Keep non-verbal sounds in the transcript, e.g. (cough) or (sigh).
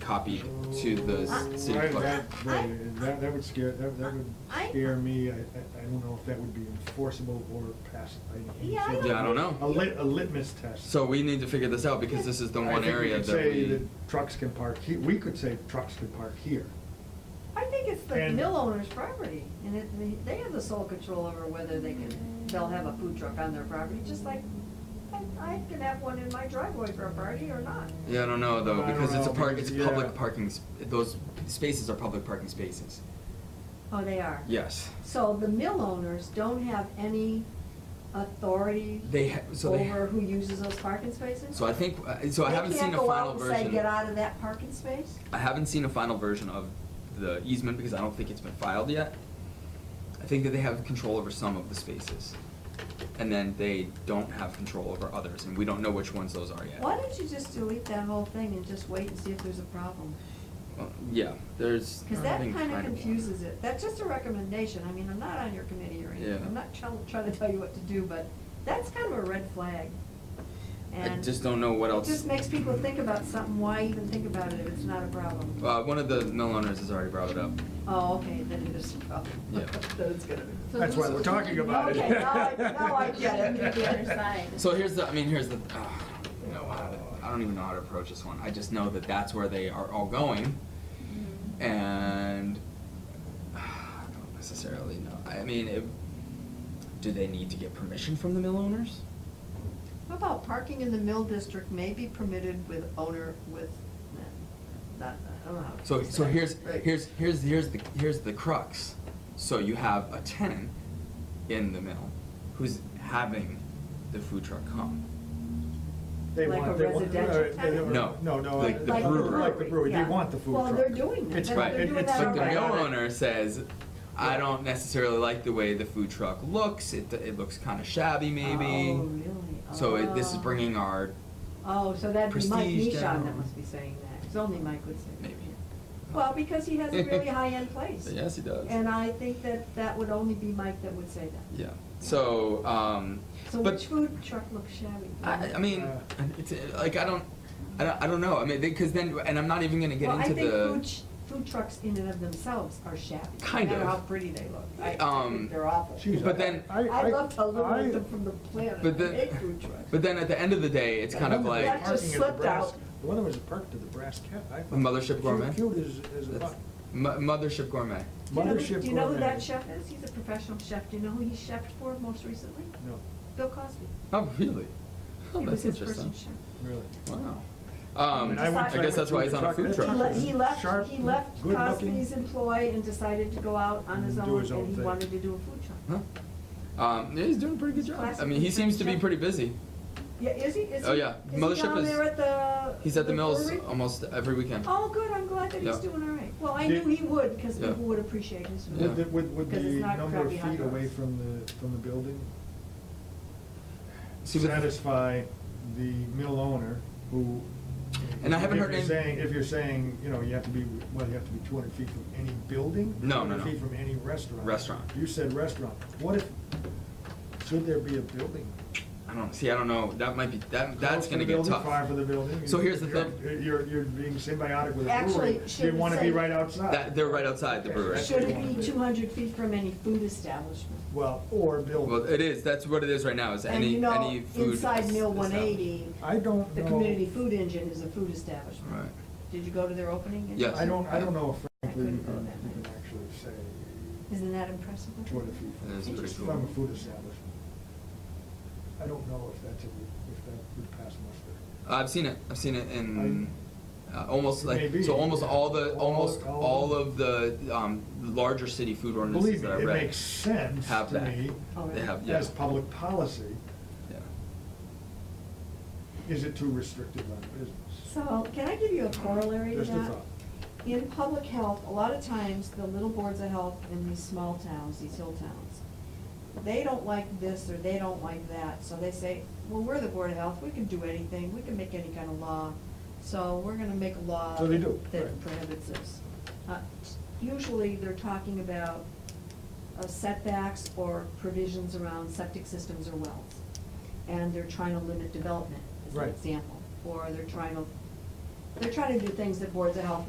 copied to the s- I- city Right, clerk. that- right, That, that would scare, that, that would I- scare me, I, I I don't know if that would be enforceable or passed. by any Yeah, I sort of- Yeah, I don't know. A lit, a litmus test. So we need to figure this out because this is the I one think we area could that Say we, that trucks can park, he- we could say trucks can park here. I think it's the And- mill owner's property, and it, they- they have the sole control over whether they can, they'll have a food truck on their property, just like I, I can have one in my driveway for a party or not. yeah, I don't know though, I don't because it's a know, park, it's because- public yeah. parking, s- those spaces are public parking spaces. Oh, they are? Yes. So the mill owners don't have any authority They ha- so they ha- over who uses those parking spaces? So I think, uh, so I haven't seen a final version. They can't go out and say, get out of that parking space? I haven't seen a final version of the easement because I don't think it's been filed yet. I think that they have control over some of the spaces. And then they don't have control over others, and we don't know which ones those are yet. Why don't you just delete that whole thing and just wait and see if there's a problem? Well, Uh, Yeah, there's. Because that nothing kind of findable. confuses it. That's just a recommendation. I mean, I'm not on your committee or anything. Yeah. I'm not trying, trying to tell you what to do, but that's kind of a red flag. I And just don't know what It else. just makes people think about something. Why even think about it if it's not a problem? Uh, one of the mill owners has already brought it up. Oh, okay, then it is a problem. Yeah. (laughs) Then it's gonna be. So That's who's- why we're talking about it. Okay, now I- now I (laughs) get it. The other side. So here's the, I mean, here's the, uh, you know, how to- I don't even know how to approach this one. I just know that that's where they are all going. Mm-hmm. Mhm. And uh, I don't necessarily know. I mean, it, do they need to get permission from the mill owners? How about parking in the mill district may be permitted with owner with, nah, not, I don't know how. to So, say so that. here's, Oh, Right. here's, here's, here's the, here's the crux. So you have a tenant in the mill who's having the food truck come. They Like want. a they want- residential uh, they- tenant? No. No, no. like uh, the like brewery. Like the brewery, they Yeah. want the food Well, truck. they're doing that. It's They're- Right. they're doing it's that But the already. mill already. owner says, I don't necessarily like the way the food truck looks. It, it looks kind of shabby maybe. Oh, really? So it, this is Oh. bringing our, Oh, so that'd be Mike Prestige Nishon that down. must be saying that, 'cause only Mike would say that. maybe. Well, because he has (laughs) a really high-end place. Yes, he does. And I think that that would only be Mike that would say that. Yeah, so, um, So but- which food truck looks shabby? I, I mean, Uh. it's, uh, like, I don't, I don't, I don't know, I mean, because then, and I'm not even gonna get into Well, I think food, the, ch- food trucks in and of themselves are shabby. Kind No matter of. how pretty they look. I- I Um, think they're awful. Jeez, But I- then- I- I'd I- love to I- eliminate them from the planet, But then- make food trucks. but then at the end of the day, it's kind of The one that like, That was just parking at the slipped brass- out. The one that was parked at the Brass Cat, I thought. Mothership Gourmet? Cute cute as, as a that's, buck. Mo- Mothership Gourmet. Do you know who- Mothership Gourmet. Do you know who that chef is? He's a professional chef. Do you know who he chefed for most recently? No, Bill Cosby. Oh, really? Oh, He was that's his first interesting. chef. really. Wow. I Um, mean, I went- I guess went that's why to he's the on a food that He truck. le- was He left, sharp, he left good looking. Cosby's employ and decided to go out on his Do own, his own and he thing. wanted to do a food truck. Huh? Um, yeah, he's doing a pretty good job. I mean, he seems to be pretty busy. Yeah, is he, is he? Oh, yeah. Is Mothership he down is- there at the? He's at the mills brewery? almost every weekend. Oh, good, I'm glad that he's Yeah. doing all right. Well, I Did- knew he would, because Yeah. people would appreciate his Yeah. Would, the- food. would, would the Because it's not number of crappy hot feet away dogs. from the, from the building See, but- satisfy the mill owner who? And I haven't heard If any- you're saying, if you're saying, you know, you have to be, well, you have to be two hundred feet from any building? No, no, 200 no. feet from any restaurant? Restaurant. You said restaurant. What if, should there be a building? I don't, see, I don't know, that might be, that, that's Close to gonna the get building, tough. Far for the building? So here's the You're- thing. You're, you're being symbiotic with a Actually, brewery. should You it wanna say- be right outside. That, they're right outside the Okay, so brewery. that's Should what you it wanna be do. two hundred feet from any food establishment? Well, or building. Well, it is. That's what it is right now. Is And any you know, any food Inside is- Mill is one eighty, I don't the know. community food engine is a food establishment. Right. Did you go to their opening? Yes. I don't, I don't know if frankly I you couldn't can do that. you can actually say Isn't that impressive? two hundred feet That is from, pretty from cool. a food establishment. I don't know if that's, a- if that would pass muster. I've seen it. I've seen it in uh, almost like Maybe. so almost all the All- almost all, all- of the um, larger city food ordinances Believe me, that I it read makes sense have to that. me Oh, They really? have Uh, yeah. as public policy, yeah. is it too restrictive on business? So, can I give you a corollary to that? Just a thought. In public health, a lot of times, the little boards of health in these small towns, these hill towns, they don't like this or they don't like that, so they say, well, we're the board of health, we can do anything, we can make any kind of law, so we're gonna make a law. So they do, That right. prohibits this. Uh, Usually, they're talking about uh, setbacks or provisions around septic systems or wells. And they're trying to limit development, as an Right. example, or they're trying to they're trying to do things that boards of health